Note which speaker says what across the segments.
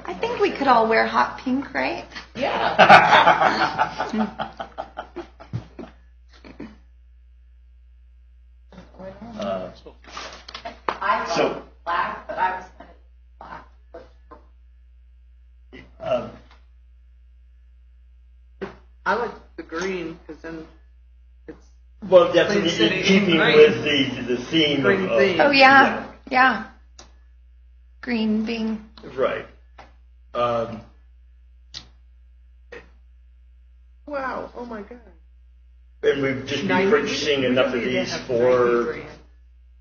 Speaker 1: could all wear hot pink, right?
Speaker 2: Yeah.
Speaker 3: Uh,
Speaker 2: I
Speaker 3: So-
Speaker 2: love black, but I was kind of black.
Speaker 3: uh,
Speaker 4: I like the green because then it's
Speaker 3: Well, that's in
Speaker 4: Clean City
Speaker 3: in
Speaker 4: is
Speaker 3: keeping
Speaker 4: green.
Speaker 3: with the, the theme of.
Speaker 4: Green
Speaker 3: of-
Speaker 4: theme.
Speaker 1: Oh, yeah, yeah. Green being,
Speaker 3: Right. Um,
Speaker 4: wow. Oh my god.
Speaker 3: and we've just been
Speaker 4: Ninety-
Speaker 3: purchasing enough of
Speaker 4: we
Speaker 3: these
Speaker 4: have
Speaker 3: for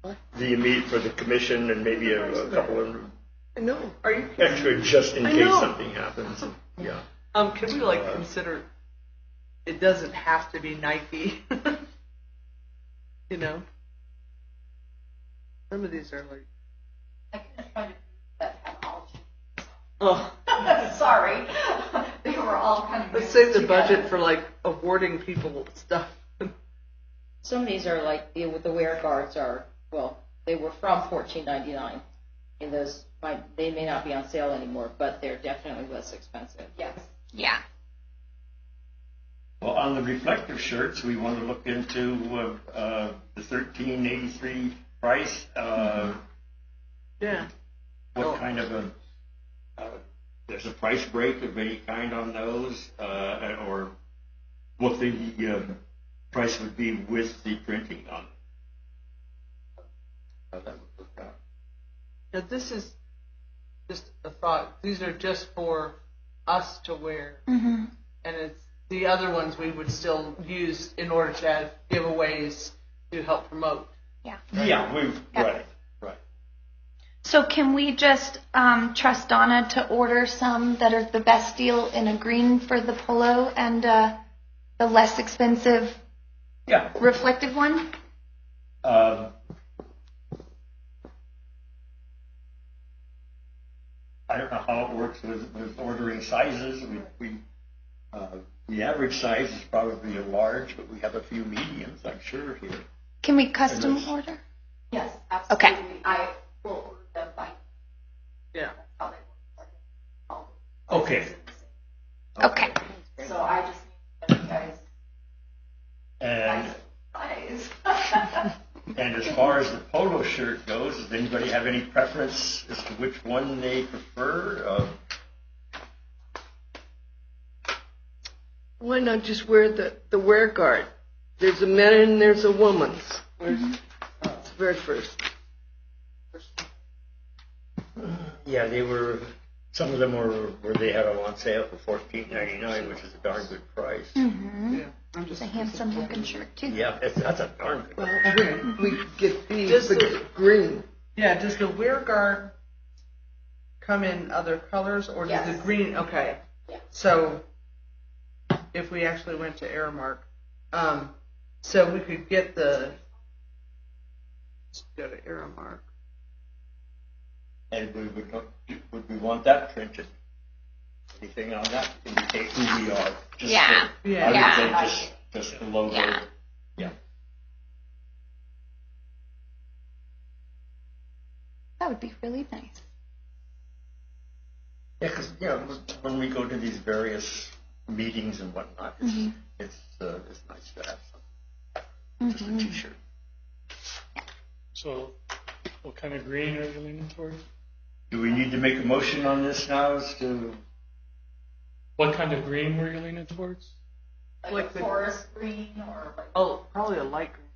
Speaker 4: 93
Speaker 3: the immediate, for the commission and maybe a, a couple of
Speaker 4: grand. No, are you? kidding?
Speaker 3: extra just in
Speaker 4: I
Speaker 3: case
Speaker 4: know.
Speaker 3: something happens. Yeah.
Speaker 4: Um, can we like
Speaker 3: Uh,
Speaker 4: consider? It doesn't have to be Nike. you know, some of these are like.
Speaker 2: I kind of tried to do that had all
Speaker 4: Oh,
Speaker 2: changed. Sorry. they were all kind of.
Speaker 4: let's
Speaker 2: mixed
Speaker 4: save the budget
Speaker 2: together.
Speaker 4: for like awarding people stuff.
Speaker 5: Some of these are like the, the wear guards are well, they were from fourteen ninety nine, and those might they may not be on sale anymore, but they're definitely less expensive.
Speaker 2: Yes.
Speaker 1: yeah.
Speaker 3: Well, on the reflective shirts, we want to look into uh, uh, the thirteen eighty three price. Uh,
Speaker 4: Yeah.
Speaker 3: What
Speaker 4: Oh.
Speaker 3: kind of a uh, there's a price break of any kind on those, uh, or what the uh, price would be with the printing on it? How that would work out.
Speaker 4: Now this is just a thought. These are just for us to wear.
Speaker 1: hmm
Speaker 4: and it's the other ones we would still use in order to have giveaways to help promote.
Speaker 3: Yeah, we've
Speaker 1: Yeah.
Speaker 3: right, right.
Speaker 1: So can we just um, trust Donna to order some that are the best deal in a green for the polo and uh, the less expensive
Speaker 3: Yeah.
Speaker 1: reflective one?
Speaker 3: Um, I don't know how it works with, with ordering sizes. We, we, uh, the average size is probably a large, but we have a few mediums, I'm sure, here.
Speaker 1: Can we custom
Speaker 3: Yes.
Speaker 1: order?
Speaker 2: Yes, absolutely.
Speaker 1: Okay.
Speaker 2: I will order them by
Speaker 4: Yeah.
Speaker 2: how they work. All
Speaker 3: Okay.
Speaker 1: Okay.
Speaker 2: the- So I just need you guys.
Speaker 3: And,
Speaker 2: Guys.
Speaker 3: and as far as the polo shirt goes, does anybody have any preference as to which one they prefer? Uh,
Speaker 6: Why not just wear the, the wear guard? There's a men and there's a woman's. Where's,
Speaker 4: Mm-hmm.
Speaker 6: it's the very first.
Speaker 3: Yeah, they were. Some of them were where they had them on sale for fourteen ninety nine, which is a darn good price.
Speaker 1: Mm-hmm.
Speaker 4: Yeah. I'm
Speaker 1: It's
Speaker 4: just
Speaker 1: a handsome looking shirt too.
Speaker 3: Yeah, that's, that's a darn good.
Speaker 6: Well, we, we could get these,
Speaker 4: Just
Speaker 6: but
Speaker 4: the-
Speaker 6: green.
Speaker 4: Yeah, does the wear guard come in other colors or does
Speaker 2: Yes.
Speaker 4: the green okay.
Speaker 2: Yeah.
Speaker 4: So if we actually went to Aramark, um, so we could get the let's go to Aramark.
Speaker 3: And we would not, would we want that printed? Anything on that indicate who we are? Just
Speaker 1: Yeah.
Speaker 3: the-
Speaker 4: Yeah.
Speaker 3: I
Speaker 1: Yeah.
Speaker 3: would say just, just the logo.
Speaker 1: Yeah. That would be really nice.
Speaker 3: Yeah, because you know when we go to these various meetings and whatnot, it's
Speaker 1: Mhm.
Speaker 3: it's, uh, it's nice to have something, just
Speaker 1: Mhm.
Speaker 3: a T-shirt.
Speaker 7: So, what kind of green are you leaning toward?
Speaker 3: Do we need to make a motion on this now as to?
Speaker 7: What kind of green were you leaning towards?
Speaker 2: Like
Speaker 4: Like
Speaker 2: a
Speaker 4: the-
Speaker 2: forest green or like.
Speaker 4: Oh, probably a light green.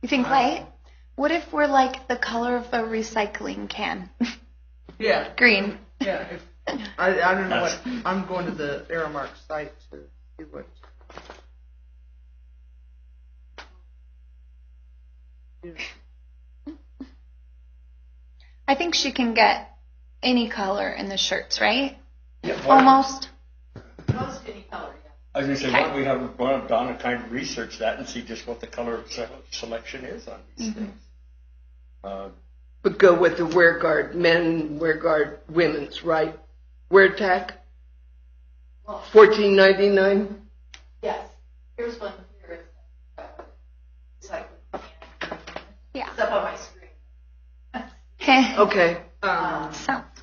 Speaker 1: You think light? What if we're like the color of a recycling can?
Speaker 4: Yeah.
Speaker 1: Green.
Speaker 4: Yeah, if, I, I don't know what, I'm going to the Aramark site to see what.
Speaker 1: I think she can get any color in the shirts, right?
Speaker 3: Yeah, why-
Speaker 1: Almost.
Speaker 2: Most any color, yeah.
Speaker 3: I was going to say, why don't we have why don't Donna kind of research that and see just what the color se- selection is on these
Speaker 1: Mm-hmm.
Speaker 3: things. Uh,
Speaker 6: But go with the wear guard, men, wear guard, women's, right? Wear tack,
Speaker 2: Well,
Speaker 6: fourteen ninety nine.
Speaker 2: yes. Here's one here. It's like.
Speaker 1: Yeah.
Speaker 2: It's up on my screen.
Speaker 1: Heh.
Speaker 6: Okay.
Speaker 4: Um,
Speaker 1: so